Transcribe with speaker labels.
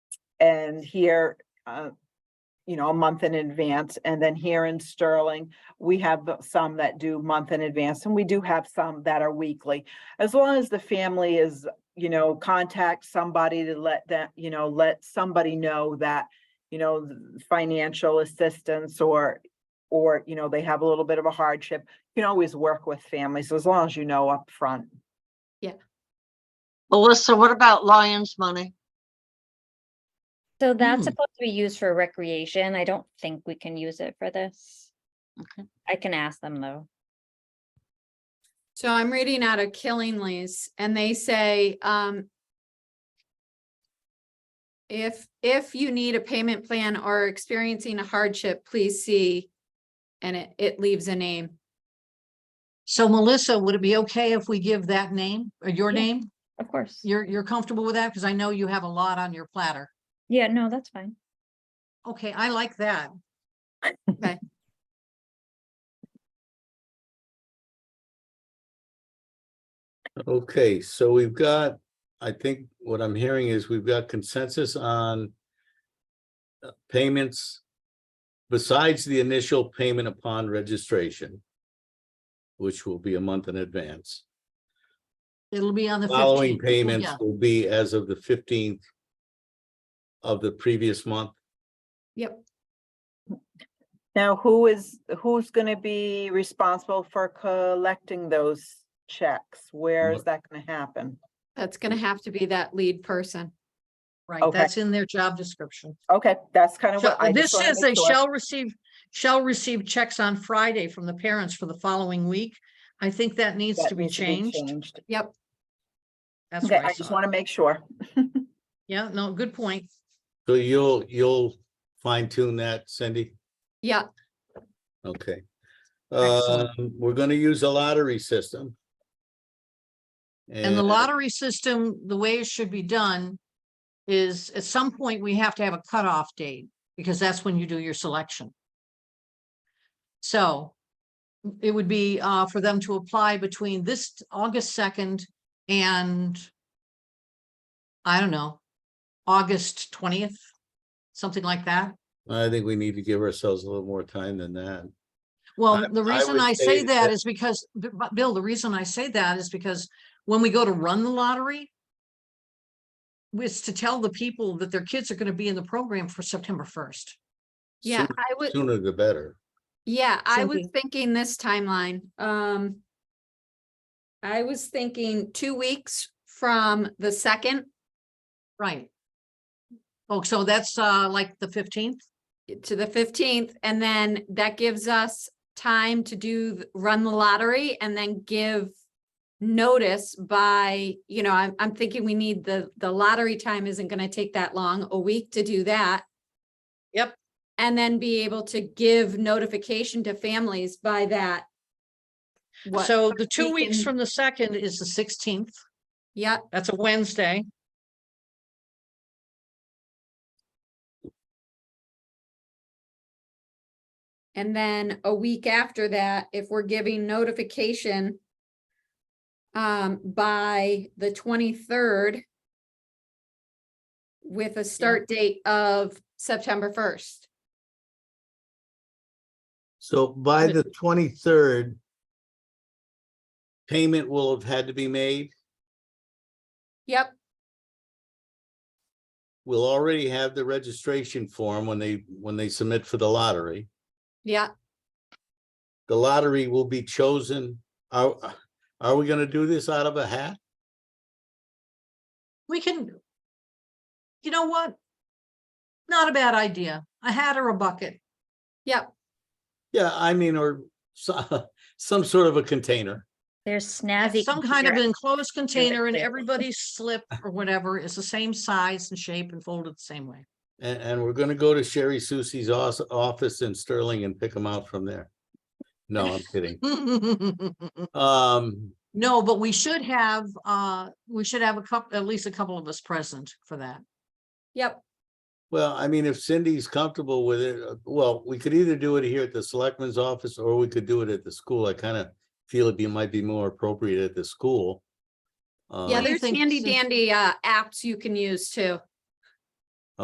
Speaker 1: and here, uh, you know, a month in advance. And then here in Sterling, we have some that do month in advance and we do have some that are weekly. As long as the family is, you know, contact somebody to let that, you know, let somebody know that, you know, th- financial assistance or, or, you know, they have a little bit of a hardship, you can always work with families as long as you know upfront.
Speaker 2: Melissa, what about Lions money?
Speaker 3: So that's
Speaker 2: Hmm.
Speaker 3: supposed to be used for recreation. I don't think we can use it for this.
Speaker 2: Okay.
Speaker 3: I can ask them though.
Speaker 4: So I'm reading out of Killingly's and they say, um. If, if you need a payment plan or are experiencing a hardship, please see. And it, it leaves a name.
Speaker 2: So Melissa, would it be okay if we give that name or your
Speaker 3: Yeah.
Speaker 2: name?
Speaker 3: Of course.
Speaker 2: You're, you're comfortable with that? Because I know you have a lot on your platter.
Speaker 3: Yeah, no, that's fine.
Speaker 2: Okay, I like that.
Speaker 5: Okay, so we've got, I think what I'm hearing is we've got consensus on uh, payments besides the initial payment upon registration, which will be a month in advance.
Speaker 2: It'll be on the
Speaker 5: Following
Speaker 2: 15th.
Speaker 5: payments
Speaker 2: Yeah,
Speaker 5: will be as of the fifteenth of the previous month.
Speaker 4: Yep.
Speaker 1: Now, who is, who's gonna be responsible for collecting those checks? Where is that gonna happen?
Speaker 4: That's gonna have to be that lead person.
Speaker 2: Right,
Speaker 1: Okay.
Speaker 2: that's in their job description.
Speaker 1: Okay, that's kind of
Speaker 2: So
Speaker 1: what I
Speaker 2: This
Speaker 1: just wanna
Speaker 2: says
Speaker 1: make
Speaker 2: they
Speaker 1: sure.
Speaker 2: shall receive, shall receive checks on Friday from the parents for the following week. I think that needs
Speaker 1: That
Speaker 2: to be
Speaker 1: needs
Speaker 2: changed.
Speaker 4: Yep.
Speaker 2: That's
Speaker 1: Okay,
Speaker 2: what I
Speaker 1: I just
Speaker 2: saw.
Speaker 1: want to make sure.
Speaker 2: Yeah, no, good point.
Speaker 5: So you'll, you'll fine tune that, Cindy?
Speaker 4: Yeah.
Speaker 5: Okay. Um,
Speaker 2: Excellent.
Speaker 5: we're gonna use a lottery system.
Speaker 2: And
Speaker 5: Eh,
Speaker 2: the lottery system, the way it should be done is at some point, we have to have a cutoff date because that's when you do your selection. So it would be uh for them to apply between this August second and I don't know, August twentieth, something like that.
Speaker 5: I think we need to give ourselves a little more time than that.
Speaker 2: Well, the
Speaker 5: I
Speaker 2: reason
Speaker 5: would
Speaker 2: I
Speaker 5: say
Speaker 2: say that
Speaker 5: that-
Speaker 2: is because, B- B- Bill, the reason I say that is because when we go to run the lottery, was to tell the people that their kids are gonna be in the program for September first.
Speaker 4: Yeah,
Speaker 5: Sooner-
Speaker 4: I would,
Speaker 5: Sooner the better.
Speaker 4: yeah, I was
Speaker 2: Cindy.
Speaker 4: thinking this timeline. Um. I was thinking two weeks from the second
Speaker 2: Right. Oh, so that's uh like the fifteenth?
Speaker 4: to the fifteenth, and then that gives us time to do, th- run the lottery and then give notice by, you know, I'm, I'm thinking we need the, the lottery time isn't gonna take that long, a week to do that.
Speaker 2: Yep.
Speaker 4: And then be able to give notification to families by that. what-
Speaker 2: So the two weeks
Speaker 4: in-
Speaker 2: from the second is the sixteenth.
Speaker 4: Yeah,
Speaker 2: That's a Wednesday.
Speaker 4: and then a week after that, if we're giving notification um, by the twenty-third with a start date of September first.
Speaker 5: So by
Speaker 2: But-
Speaker 5: the twenty-third, payment will have had to be made.
Speaker 4: Yep,
Speaker 5: We'll already have the registration form when they, when they submit for the lottery.
Speaker 4: yeah,
Speaker 5: The lottery will be chosen. Are, are we gonna do this out of a hat?
Speaker 2: We can. You know what? Not a bad idea. A hat or a bucket.
Speaker 4: yep,
Speaker 5: Yeah, I mean, or so- some sort of a container.
Speaker 3: There's
Speaker 2: at
Speaker 3: snazzy.
Speaker 2: some kind of
Speaker 3: computer-
Speaker 2: enclosed container and
Speaker 3: too.
Speaker 2: everybody's slip or whatever is the same size and shape and folded the same way.
Speaker 5: And, and we're gonna go to Sherry Susie's os- office in Sterling and pick them out from there. No, I'm kidding. Um,
Speaker 2: No, but we should have, uh, we should have a couple, at least a couple of us present for that.
Speaker 4: yep.
Speaker 5: well, I mean, if Cindy's comfortable with it, uh, well, we could either do it here at the selectman's office or we could do it at the school. I kind of feel it'd be, might be more appropriate at the school.
Speaker 4: Yeah,
Speaker 5: Uh,
Speaker 2: do you
Speaker 4: there's
Speaker 2: think,
Speaker 4: handy
Speaker 2: Cindy?
Speaker 4: dandy uh apps you can use too.